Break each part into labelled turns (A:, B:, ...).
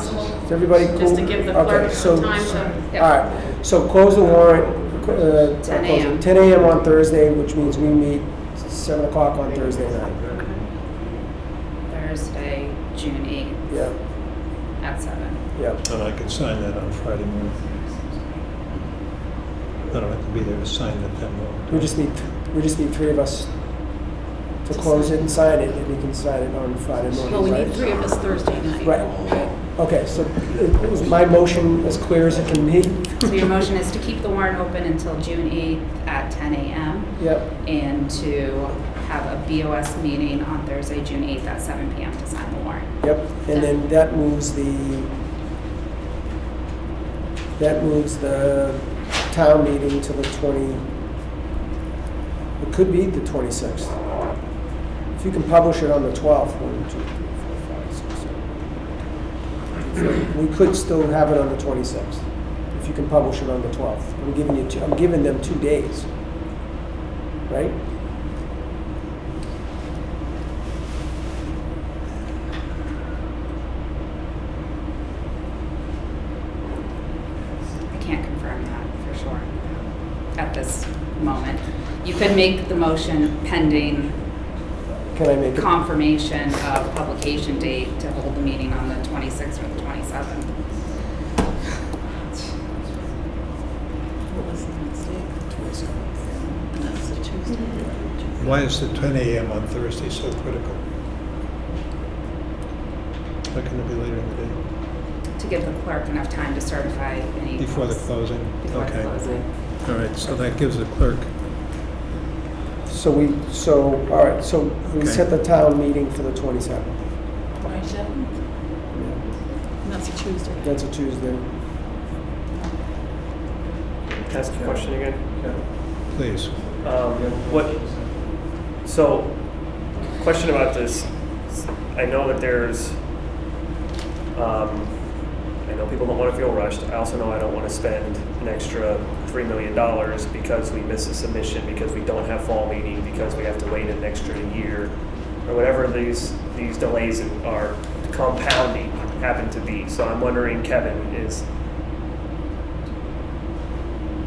A: Is everybody cool?
B: Just to give the clerk
A: Okay, so-
B: some time to,
A: All right, so close the warrant. uh,
B: 10
A: close
B: a.m.
A: it 10 a.m. on Thursday, which means we meet 7 o'clock on Thursday night.
C: Thursday, June 8th
A: Yeah,
C: at 7.
A: yeah.
D: And I could sign that on Friday morning. I don't have to be there to sign it that
A: We
D: morning.
A: just need, we just need three of us to close it and sign it, and we can sign it on Friday
B: well, we
A: morning,
B: need
A: right?
B: three of us Thursday night.
A: Right. Okay, so uh, is my motion as clear as it can be?
C: So your motion is to keep the warrant open until June 8th at 10 a.m.
A: Yep,
C: and to have a BOS meeting on Thursday, June 8th at 7 p.m. to sign the warrant.
A: yep. And then that moves the, that moves the town meeting to the 20, it could be the 26th. If you can publish it on the 12th, one, two, three, four, five, six, seven. eight. We could still have it on the 26th, if you can publish it on the 12th. I'm giving you, two- I'm giving them two days, right?
C: I can't confirm that for sure at this moment. You could make the motion pending
A: Can I make it?
C: confirmation of publication date to hold the meeting on the 26th or the 27th.
B: What was the next day? That's the Tuesday.
D: Why is the 10 a.m. on Thursday so critical? Why couldn't it be later in the day?
C: to give the clerk enough time to certify any.
D: Before the
C: votes.
D: closing?
C: Before the
D: Okay.
C: closing.
D: All right, so that gives the clerk,
A: So we, so, all right, so we
D: Okay.
A: set the town meeting for the 27th.
B: Twenty-seven? That's a Tuesday.
A: That's a Tuesday.
E: Can I ask a question again?
D: please.
E: Um, What, so, question about this, I know that there's, um, I know people don't want to feel rushed, I also know I don't want to spend an extra $3 million because we miss a submission, because we don't have fall meeting, because we have to wait an extra year, or whatever these, these delays are compounding happen to be. So I'm wondering, Kevin, is,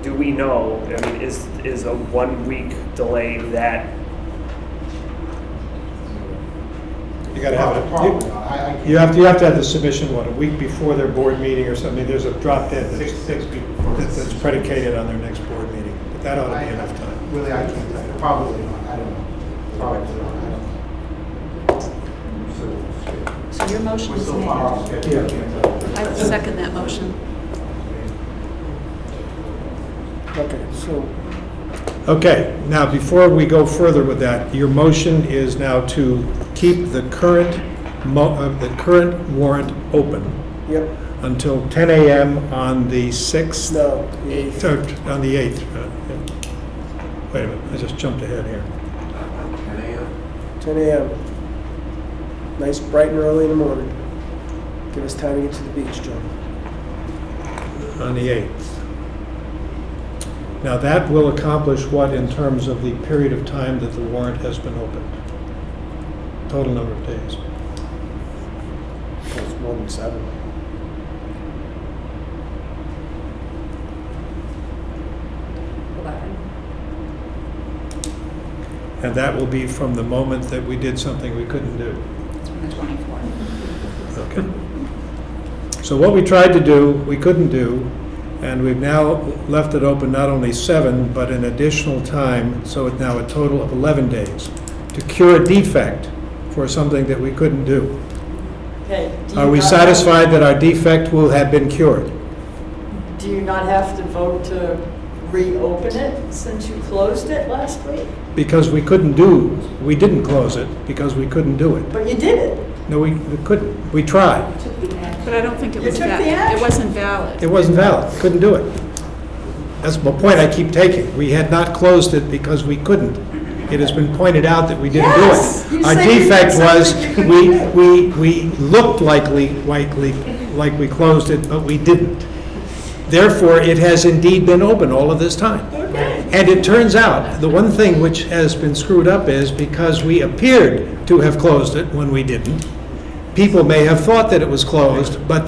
E: do we know, I mean, is, is a one-week delay that
D: You gotta have it.
F: Probably not. I- I can't-
D: You have to, you have to have the submission, what, a week before their board meeting or something? There's a drop dead
F: Six,
D: that's-
F: six weeks before.
D: that's that's predicated on their next board meeting, but that ought to be enough time.
F: Really, I can't tell you. Probably not. I don't know. Probably not. I don't know.
B: So your
F: So,
B: motion
F: We're
B: is
F: so far
B: made.
F: off schedule. I can't tell. you.
B: I second that motion.
A: Okay, so,
D: Okay, now, before we go further with that, your motion is now to keep the current, mo- uh, the current warrant open
A: yep,
D: until 10 AM on the 6th?
A: no, the eighth.
D: So, On the 8th. uh, yeah. Wait a minute, I just jumped ahead here.
A: 10 a.m. Nice, bright and early in the morning. Give us time to get to the beach, John.
D: on the 8th. Now, that will accomplish what in terms of the period of time that the warrant has been opened? Total number of days.
A: It's more than seven.
C: Eleven.
D: And that will be from the moment that we did something we couldn't do.
C: It's from the 24th.
D: Okay. So what we tried to do, we couldn't do, and we've now left it open not only seven, but an additional time, so it's now a total of 11 days, to cure a defect for something that we couldn't do.
G: Okay. do you
D: Are we
G: not-
D: satisfied that our defect will have been cured?
G: Do you not have to vote to reopen it since you closed it last week?
D: Because we couldn't do, we didn't close it because we couldn't do it.
G: But you did it.
D: No, we we couldn't. We tried.
B: But I don't think it
G: You
B: was
G: took
B: that,
G: the action.
B: it wasn't valid.
D: It wasn't valid. Couldn't do it. That's my point I keep taking. We had not closed it because we couldn't. It has been pointed out that we didn't do it.
G: Yes! You
D: Our
G: said you did
D: defect was,
G: something you
D: we,
G: couldn't
D: we, we looked likely, likely, like we closed it, but we didn't. Therefore, it has indeed been open all of this time. And it turns out, the one thing which has been screwed up is because we appeared to have closed it when we didn't, people may have thought that it was closed, but